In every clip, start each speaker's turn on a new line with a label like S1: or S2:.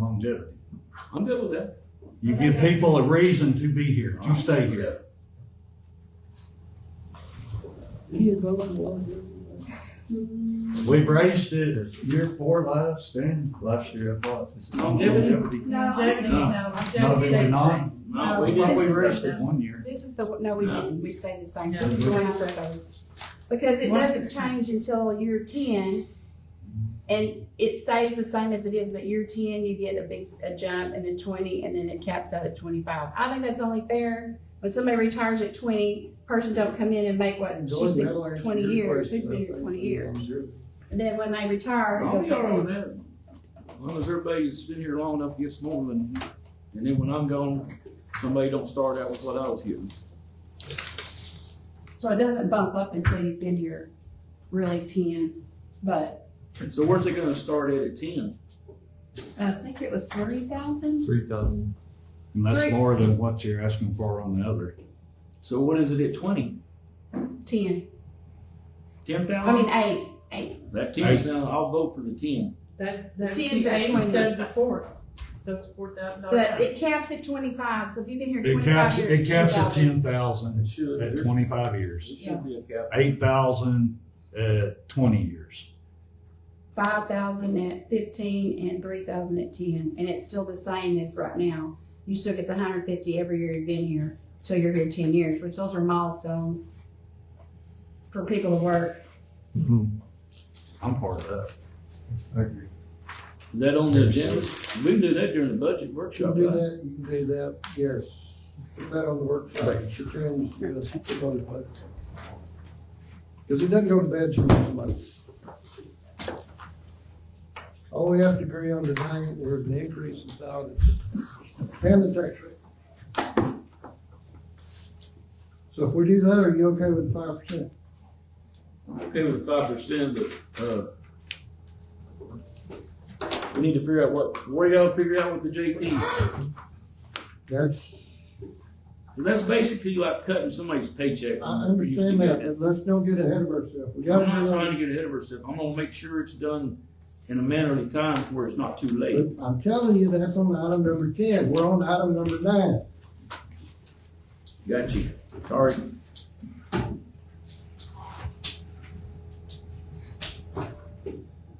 S1: longevity.
S2: I'm good with that.
S1: You give people a reason to be here, to stay here.
S3: You didn't vote on Lois.
S1: We've raised it year four last and last year, I thought. this is
S2: Longevity?
S4: No,
S5: Longevity,
S2: No.
S5: no,
S1: No, did
S5: longevity stays
S1: we
S5: the same.
S1: not?
S2: No, we
S5: No.
S1: Well,
S2: didn't.
S1: we raised it one year.
S4: This is the, no, we
S2: No.
S4: didn't, we stayed the same.
S5: No.
S4: We're going with those. Because it doesn't change until year ten, and it stays the same as it is, but year ten, you get a big, a jump, and then twenty, and then it caps out at twenty-five. I think that's only fair, when somebody retires at twenty, person don't come in and make what, she's been twenty years, she's been here twenty years. And then when they retire,
S2: I'm
S4: it
S2: all right
S4: goes-
S2: with that. As long as everybody's been here long enough gets more than, and then when I'm gone, somebody don't start out with what I was getting.
S4: so it doesn't bump up until you've been here really ten, but
S2: So where's it gonna start at at ten?
S4: uh, I think it was three thousand?
S6: Three thousand.
S1: And that's
S4: Right.
S1: more than what you're asking for on the other.
S2: So what is it at twenty?
S4: Ten.
S2: Ten
S4: I mean,
S2: thousand?
S4: eight.
S2: That ten sound, I'll vote for the ten.
S5: That, that
S4: Tens
S5: would be
S4: are
S5: eight
S4: 20.
S5: instead of the four. So it's four thousand
S4: But
S5: dollars.
S4: it caps at twenty-five, so if you've been here
S1: It
S4: twenty-five
S1: caps,
S4: years.
S1: it caps at ten
S4: 10,000.
S1: thousand
S2: should.
S1: at twenty-five years,
S2: It should be a cap.
S1: eight thousand at twenty years.
S4: Five thousand at fifteen and three thousand at ten, and it's still the same as right now. You still get the hundred fifty every year you've been here, till you're here ten years, which those are milestones for people to work.
S1: I'm part of that.
S7: I agree.
S2: Is that on the agenda? We can do that during the budget
S7: You
S2: workshop,
S7: can do
S2: right?
S7: that, you can do that, Gary. Put that on the workshop, you should tell him to do this, put it on his budget. Cause he doesn't go to bed for his money. All we have to agree on tonight, we're gonna increase in salaries and the tax rate. So if we do that, are you okay with five percent?
S2: Okay with five percent, but, uh, we need to figure out what, where y'all figure out with the JP?
S7: That's,
S2: That's basically like cutting somebody's paycheck.
S7: I understand that, but let's don't get ahead of ourselves. We gotta.
S2: I'm not trying to
S7: remember-
S2: get ahead of ourselves. I'm gonna make sure it's done in a mannerly time to where it's not too late.
S7: but I'm telling you, that's on item number ten, we're on item number nine.
S2: Got you. Sorry.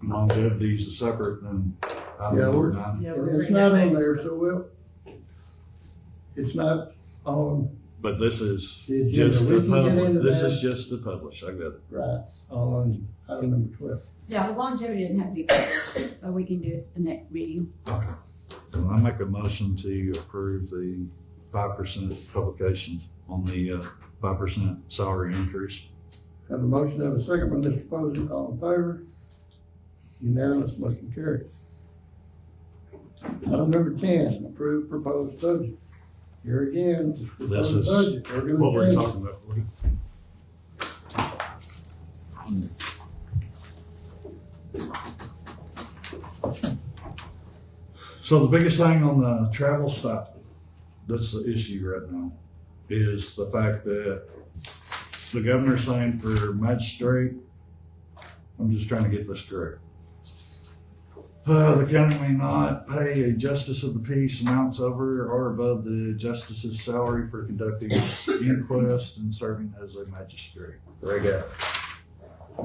S1: Longevity is separate than.
S7: Yeah, we're-
S5: Yeah, we're
S7: It's
S5: bringing
S7: not
S5: that
S7: on
S5: back.
S7: there, so we'll, it's not on,
S1: But this is
S7: The agenda.
S1: just the
S7: We can get into
S1: public, this
S7: that.
S1: is just the publish, I got it.
S7: right, on item number twelve.
S4: Yeah, the longevity doesn't have to be, covered, so we can do it the next meeting.
S1: So I make a motion to approve the five percent publication on the uh, five percent salary increase.
S7: Have a motion, have a second by Mr. Posey, all in favor? Unanimous, motion carried. Item number ten, approve proposed budget. Here again, it's
S1: This
S7: proposed
S1: is
S7: budget. gonna
S1: what we're
S7: change it.
S1: talking about. Woody. So the biggest thing on the travel stipend, that's the issue right now, is the fact that the governor's saying for magistrate, I'm just trying to get this straight. Uh, the county may not pay a justice of the peace amounts over or above the justice's salary for conducting inquest and serving as a magistrate. There you go.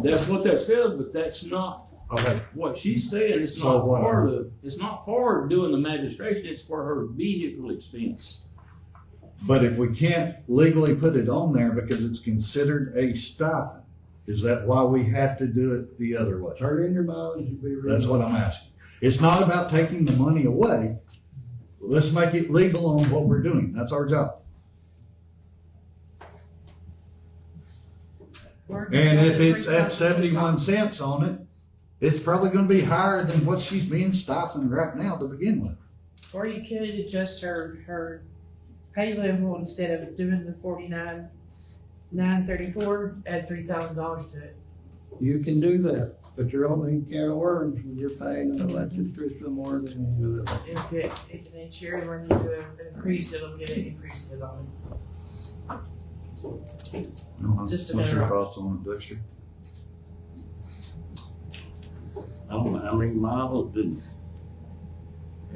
S2: That's what that says, but that's not
S1: Okay,
S2: what she's saying. It's
S1: So
S2: not
S1: what
S2: for
S1: are-
S2: the, it's not for doing the magistration. It's for her vehicle expense.
S1: but if we can't legally put it on there because it's considered a stipend, is that why we have to do it the other way?
S7: Turn in your mileage, you'll be.
S1: That's what I'm asking. It's not about taking the money away. Let's make it legal on what we're doing. That's our job. And if it's at seventy-one cents on it, it's probably gonna be higher than what she's being stipend right now to begin with.
S5: Or you could adjust her, her pay level instead of doing the forty-nine, nine thirty-four, add three thousand dollars to it.
S7: You can do that, but you're opening a can of worms when you're paying an elected official more than you do.
S5: If it, if it ain't sure when you do an increase, it'll get an increase in the bottom. Just a
S1: What's your
S5: better
S1: thoughts on it, Dexter?
S8: I don't know how many miles, but